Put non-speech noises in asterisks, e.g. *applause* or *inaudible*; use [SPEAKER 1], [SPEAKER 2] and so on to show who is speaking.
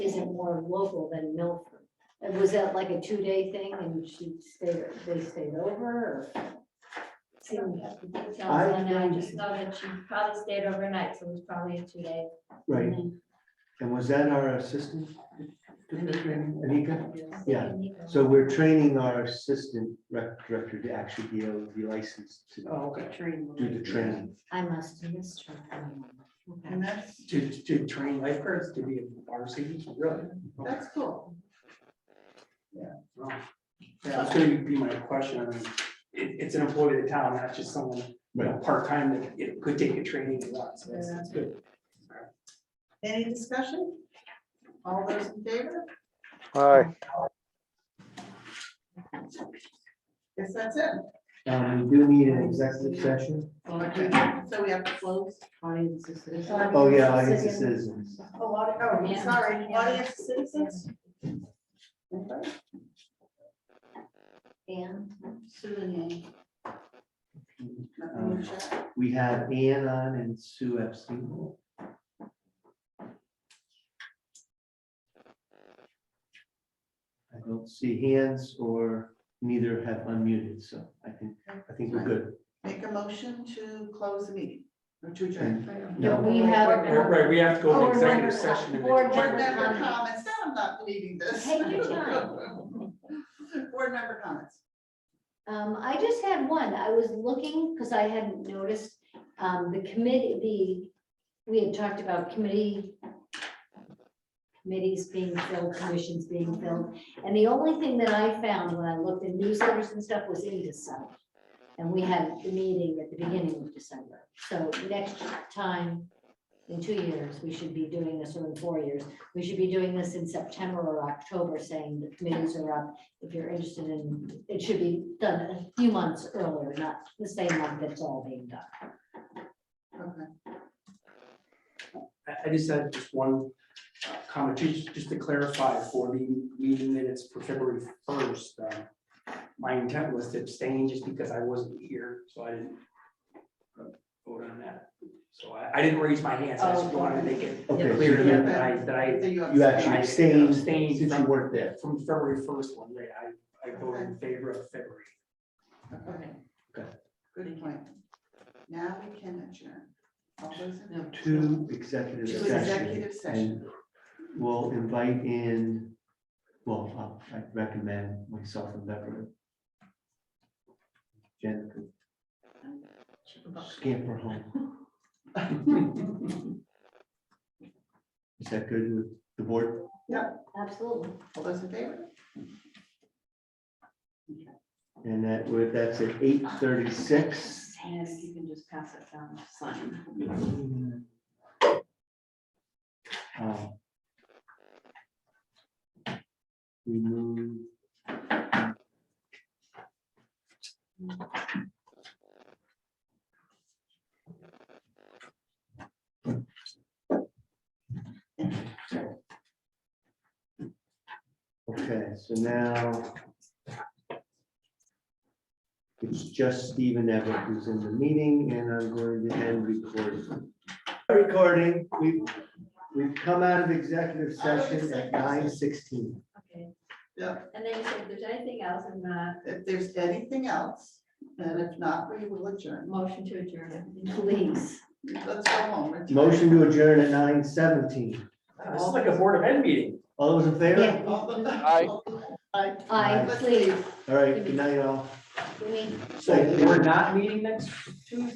[SPEAKER 1] isn't more local than Milford. And was that like a two-day thing and she stayed, they stayed over or? Seemed-
[SPEAKER 2] Sounds
[SPEAKER 1] I
[SPEAKER 2] like I
[SPEAKER 1] think-
[SPEAKER 2] just know that she probably stayed overnight, so it was probably a two day.
[SPEAKER 3] Right, and was that our assistant? Anika? Yeah, So we're training our assistant rec director to actually be able to be licensed to
[SPEAKER 4] Oh, okay.
[SPEAKER 3] do the training.
[SPEAKER 1] I must have missed her. Okay.
[SPEAKER 4] And that's,
[SPEAKER 5] To, to train lifeguards to be water safety, really?
[SPEAKER 4] that's cool.
[SPEAKER 5] Yeah, that's gonna be my question. I mean, it, it's an employee of the town, not just someone, you know, part-time that, you know, could take a training and that, so that's, that's good.
[SPEAKER 4] Any discussion? All those in favor?
[SPEAKER 6] Aye,
[SPEAKER 4] Yes, that's it.
[SPEAKER 3] Um, we do need an executive session.
[SPEAKER 4] So we have to close.
[SPEAKER 1] Audience is this-
[SPEAKER 3] Oh, yeah, I guess the citizens.
[SPEAKER 4] A lot, oh,
[SPEAKER 2] Yeah.
[SPEAKER 4] sorry, audience citizens? Anybody?
[SPEAKER 1] And
[SPEAKER 4] Nothing in chat?
[SPEAKER 3] We have Ann on and Sue Epstein. I don't see hands or neither have unmuted, so I think, I think we're good.
[SPEAKER 4] Make a motion to close the meeting or to adjourn.
[SPEAKER 1] No, we
[SPEAKER 5] Right,
[SPEAKER 1] have,
[SPEAKER 5] right, we have to go
[SPEAKER 1] Oh,
[SPEAKER 5] to
[SPEAKER 1] we're
[SPEAKER 5] executive
[SPEAKER 1] not-
[SPEAKER 5] session. and then-
[SPEAKER 1] we're
[SPEAKER 4] uh, Board member
[SPEAKER 1] not-
[SPEAKER 4] comments, no, I'm not believing this.
[SPEAKER 1] Take your
[SPEAKER 4] *laughs* Board member comments.
[SPEAKER 1] um, I just had one. I was looking because I hadn't noticed, um, the committee, the, we had talked about committee committees being filled, commissions being filled, and the only thing that I found when I looked in newsletters and stuff was in December. And we had the meeting at the beginning of December. So next time, in two years, we should be doing this, or in four years, we should be doing this in September or October, saying the committees are up. If you're interested in, it should be done a few months earlier, not the same month that's all being done.
[SPEAKER 4] Okay.
[SPEAKER 5] I, I just had just one uh, comment, just, just to clarify for the meeting minutes for February first. uh, My intent was to abstain just because I wasn't here, so I didn't uh, vote on that. So I, I didn't raise my hands, I just wanted to make it
[SPEAKER 3] Okay, so
[SPEAKER 5] clear to them
[SPEAKER 3] you-
[SPEAKER 5] that I, that I
[SPEAKER 4] So you
[SPEAKER 3] you
[SPEAKER 4] abstain.
[SPEAKER 3] actually abstained
[SPEAKER 5] Abstained
[SPEAKER 3] since you
[SPEAKER 5] from-
[SPEAKER 3] weren't there.
[SPEAKER 5] from the February first one, right, I, I voted in favor of February.
[SPEAKER 4] Okay.
[SPEAKER 3] Good.
[SPEAKER 4] Good point. Now we can adjourn. All those in.
[SPEAKER 3] Two executive
[SPEAKER 4] To
[SPEAKER 3] sessions.
[SPEAKER 4] executive session.
[SPEAKER 3] We'll invite in, well, I I'd recommend myself and Deborah. Jen could scamper home. Is that good with the board?
[SPEAKER 1] Absolutely.
[SPEAKER 4] *laughs* All those in favor?
[SPEAKER 3] And that, would- that's at eight thirty-six.
[SPEAKER 7] And if you can just pass it down, to sign.
[SPEAKER 3] Mm. Uh, We move. Okay, so now. It's just Stephen Everett who's in the meeting and I'm going to end recording. Recording, we, we've come out of executive session at nine sixteen.
[SPEAKER 2] Okay.
[SPEAKER 4] Yeah.
[SPEAKER 2] And then you said, if there's anything else in the
[SPEAKER 4] If there's anything else, and if not, we will adjourn.
[SPEAKER 2] motion to adjourn.
[SPEAKER 1] Please.
[SPEAKER 4] Let's go home. We're-
[SPEAKER 3] Motion to adjourn at nine seventeen.
[SPEAKER 5] This is like a board of ed meeting.
[SPEAKER 3] All those in favor?
[SPEAKER 1] Yeah.
[SPEAKER 4] All the- *laughs* Aye.
[SPEAKER 1] I,
[SPEAKER 3] Aye.
[SPEAKER 1] please,
[SPEAKER 3] All right, good night all.
[SPEAKER 1] we need
[SPEAKER 5] So we're not meeting next